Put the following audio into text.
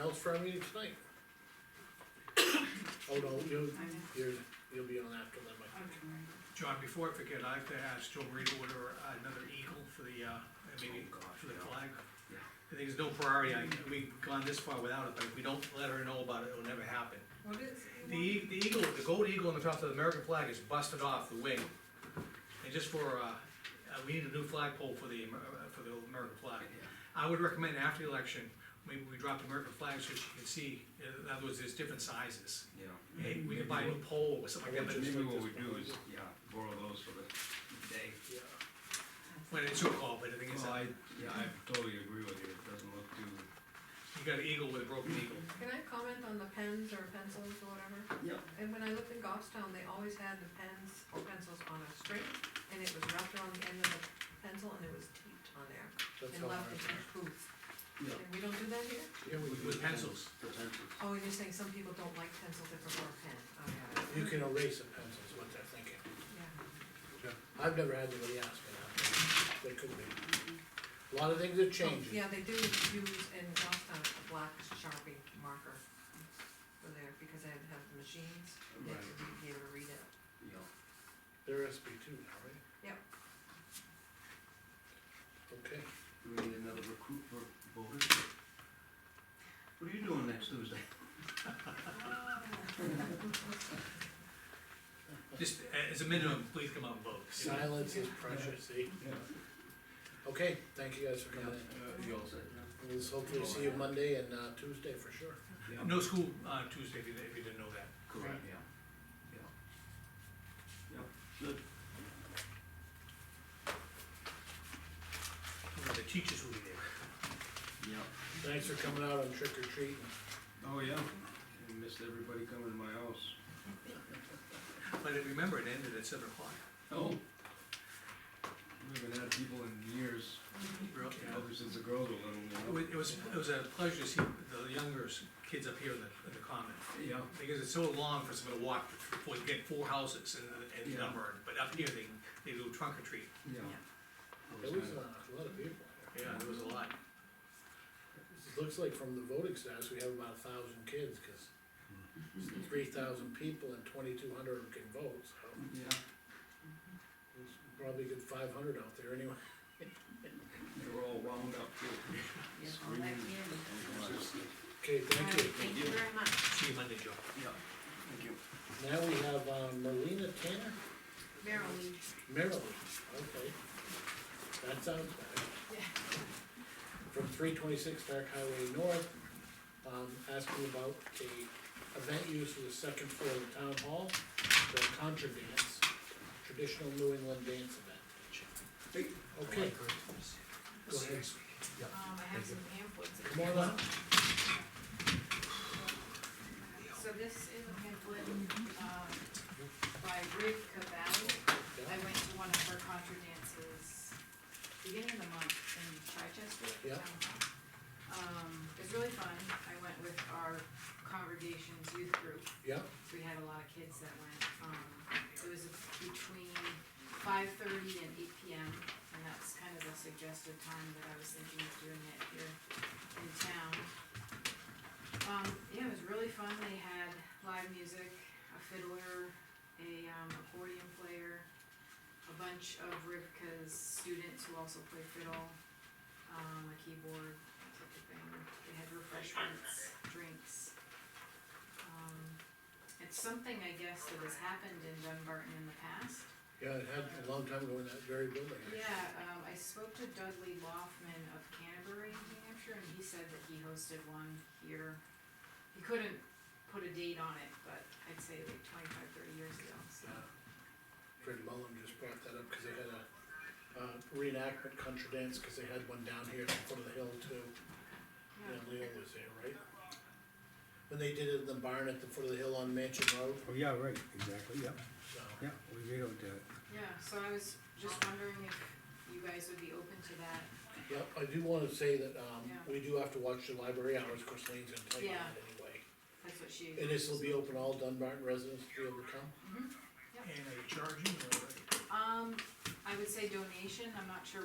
else for our meeting tonight? Oh, no, you, you're, you'll be on after that, Mike. John, before I forget, I have to ask Joe Marie to order another eagle for the, uh, maybe Oh, for the flag. I think there's no priority, I, we've gone this far without it, but if we don't let her know about it, it'll never happen. What is? The, e- the eagle, the gold eagle on the top of the American flag is busted off the wing. And just for, uh, uh, we need a new flagpole for the, Amer- uh, for the American flag. I would recommend after the election, maybe we drop the American flag so she can see, in other words, there's different sizes. Yeah. Hey, we could buy a new pole or something like that, but it's- Maybe what we do is, yeah, borrow those for the day. when it's so called, but the thing is, Well, Oh, I, uh, yeah, I totally agree with you, it doesn't look too. you got an eagle with a broken eagle. Can I comment on the pens or pencils or whatever? Yeah. And when I lived in Goffstown, they always had the pens or pencils on a string, and it was wrapped around the end of the pencil, and it was taped on there, That's and all left in right. the booth. Yeah. And we don't do that here? Yeah, we do. With pencils. Oh, you're saying some people don't like pencils, they prefer a pen, oh, yeah, You can erase the pencils, what they're thinking. yeah. I've never had anybody ask me that, but they could be. A lot of things are changing. Yeah, they do use in Goffstown a black Sharpie marker for there, because they have the machines, they have to be able to read it. Yeah. They're SB two now, right? Yep. Okay, Do we need another recruit for voters? What are you doing next Tuesday? Just a- as a minimum, please come out and vote. you know? silence is precious, see? Okay, thank you guys for coming in. uh, You all said. We'll hopefully see you Monday and, uh, Tuesday for sure. No school, uh, Tuesday, if you, if you didn't know that. Correct, yeah. Yeah. Yeah, good. The teachers will be there. Yeah. Thanks for coming out on trick or treating. Oh, yeah. I missed everybody coming to my house. But remember, it ended at seven o'clock. Oh. We haven't had people in years, probably since the girls were It little, wa- It was, it was a pleasure to see the younger s- kids up here in the, in the common, you know? because it's so long for someone to walk, for, to get four houses and, and Yeah. number, but up here, they, they do trunk or treat. Yeah, yeah. There was uh, a lot of people. Yeah, there was a lot. It Looks like from the voting stats, we have about a thousand kids, cause three thousand people and twenty-two hundred of them can vote, so. Yeah, there's Probably a good five hundred out there anyway. they were all wound up too. Screaming. Oh, God. Okay, thank you. Thank you very much. See you Monday, Joe. Yeah, thank you. Now we have uh, Marlena Tanner, Marilyn. Maryland, okay. That sounds bad. From three twenty-six Dark Highway North, um, asking about a event used for the second floor of the town hall, the contra dance, traditional New England dance event. Okay, go ahead, Um, I have some pamphlets. if come you on want. up. So this is a pamphlet, um, by Rick Cavalli. I went to one of her contra dances beginning of the month in Chichester. at the Yeah. town hall. Um, it's really fun. I went with our congregation's youth group. Yeah, We had a lot of kids that went, um, it was between five thirty and eight P M, and that's kind of the suggested time that I was thinking of doing it here in town. Um, yeah, it was really fun, they had live music, a fiddler, a, um, accordion player, a bunch of Rivka's students who also play fiddle, um, a keyboard, that type of thing, they had refreshments, drinks. Um, it's something, I guess, that has happened in Dunbarton in the past. yeah, it had a long time ago in that very building. Yeah, um, I spoke to Dudley Loffman of Canterbury, New Hampshire, and he said that he hosted one here. He couldn't put a date on it, but I'd say like 25, 30 years ago, so. Uh, Fred Mullin just brought that up, cause they had a, uh, reenactment country dance, cause they had one down here at the foot of the hill too. yeah. Yeah, Leo was there, right? When they did it in the barn at the foot of the hill on Mansion Road, Oh, yeah, right, exactly, yeah, so. yeah, we videoed that. Yeah, so I was just wondering if you guys would be open to that. Yep, I do wanna say that, um, Yeah. we do have to watch the library hours, of course, Lane's gonna play on Yeah. it anyway. That's what she. And this will be open all Dunbarton residents to be able to come? And are you charging or? Um, I would say donation, I'm not sure